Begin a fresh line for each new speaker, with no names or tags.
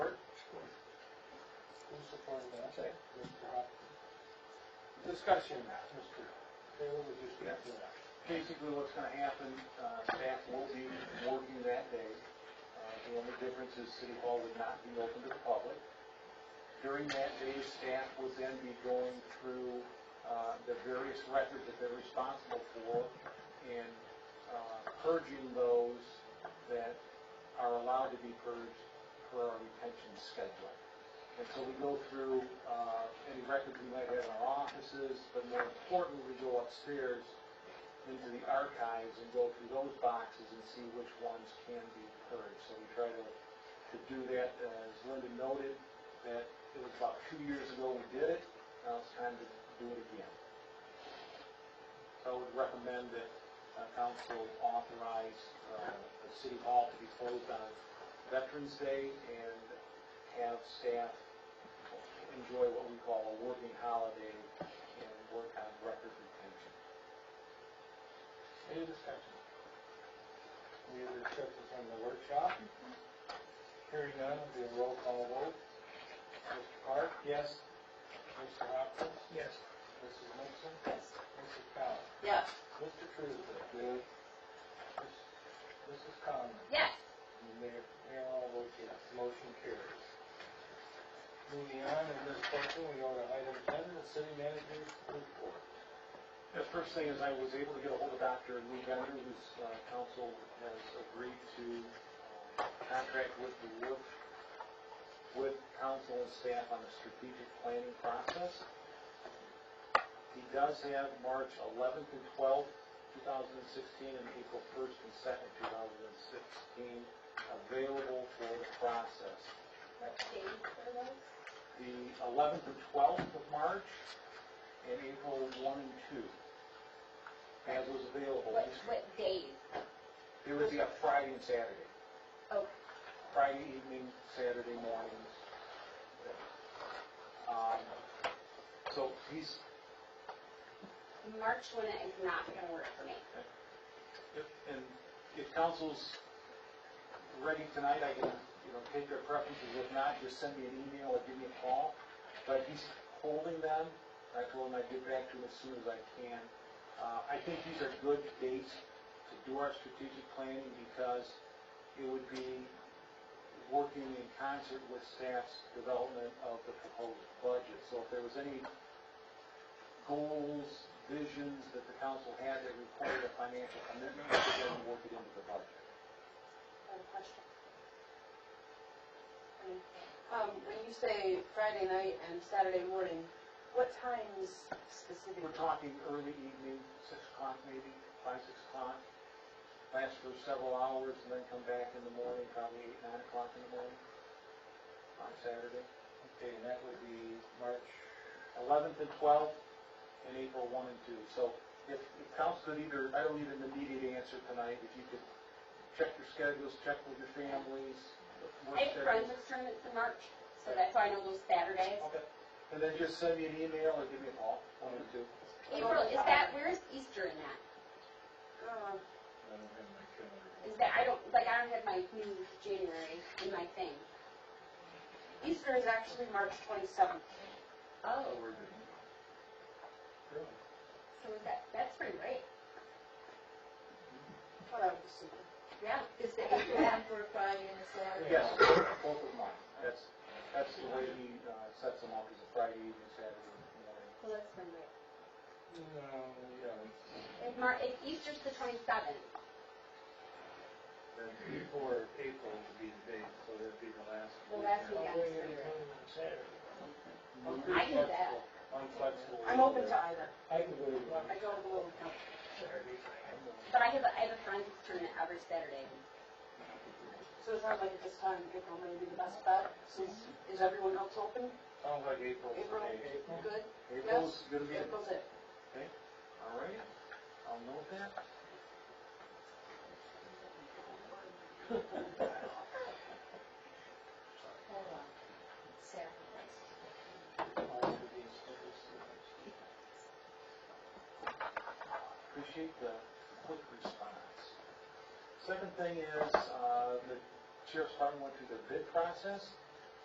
Cornbell, second, Mr. Hopkins. Discussion, Mr. Taylor, would you speak to that?
Basically, what's gonna happen, uh, staff will be working that day. Uh, The only difference is City Hall would not be open to the public. During that day, staff would then be going through uh, the various records that they're responsible for and uh, purging those that are allowed to be purged per our retention schedule. And so we go through uh, any records we might have in our offices, but more importantly, we go upstairs into the archives and go through those boxes and see which ones can be purged. So we try to, to do that, Uh, as Linda noted, that it was about two years ago we did it, now it's time to do it again. So I would recommend that uh, council authorize uh, the city hall to be closed on Veterans Day and have staff enjoy what we call a working holiday and work on record retention.
Any discussion? Any other discussions on the workshop? Hearing none, it'll be a roll call vote. Mr. Park?
Yes?
Mr. Hopkins?
Yes.
Mrs. Nixon?
Yes.
Mrs. Powell?
Yes.
Mr. Truesdale? Yes. Mrs. Conlon?
Yes.
And the Mayor, Mayor all votes yes, motion carries. Moving on, in this section, we go to item ten, the city manager's report.
The first thing is I was able to get a hold of Dr. Lee Bender, whose uh, council has agreed to uh, contract with the work, with council and staff on the strategic planning process. He does have March 11th and 12th, 2016, and April 1st and 2nd, 2016, available for the process.
What date are those?
The 11th and 12th of March, and April 1 and 2, as was available.
What, what days?
It would be a Friday and Saturday.
Oh,
Friday evening, Saturday mornings. Um, So he's,
March when it is not gonna work for me.
if- and if council's ready tonight, I can, you know, take their preferences. If not, just send me an email or give me a call. But he's holding them. I told him I'd get back to him as soon as I can. Uh, I think these are good dates to do our strategic planning because it would be working in concert with staff's development of the proposed budget. So if there was any goals, visions that the council had that required a financial commitment, we could then work it into the budget.
I have a question.
Um, when you say Friday night and Saturday morning, what times specifically?
We're talking early evening, six o'clock maybe, five, six o'clock, last for several hours, and then come back in the morning, probably eight, nine o'clock in the morning on Saturday.
Okay, and that would be March,
11th and 12th, and April 1 and 2. So if if council could either, I don't need an immediate answer tonight, if you could check your schedules, check with your families, work
I have friends
schedules.
with tournaments in March, so that's why I know those Saturdays.
Okay. And then just send me an email or give me a call, one or two.
April, is that, where is Easter in that?
Uh,
I don't have my calendar.
Is that, I don't, like, I don't have my new January in my thing.
Easter is actually March 27th.
Oh,
Really?
so is that, that's pretty great.
Whatever, super.
Yeah.
Is the April one for a Friday and a Saturday?
Yes, both of mine. That's, that's the way he uh, sets them up, is a Friday evening, Saturday morning.
Well, that's pretty great.
No, yeah,
If Mar, if Easter's the twenty-seventh,
then before April would be the date, so that'd be the last.
The last
weekend.
weekend.
I'm
I can do that.
I'm flexible.
I'm open to either.
I can go to
I go to the little town.
but I have, a I have a friends tournament every Saturday.
So it sounds like at this time, April may be the best bet, since, is everyone else open?
Sounds like April's the
April,
date.
good?
April's gonna be,
April's it.
all right, I'll note that.
Hold on. Saturday.
Appreciate the quick response. Second thing is, uh, the sheriff's department went through the bid process.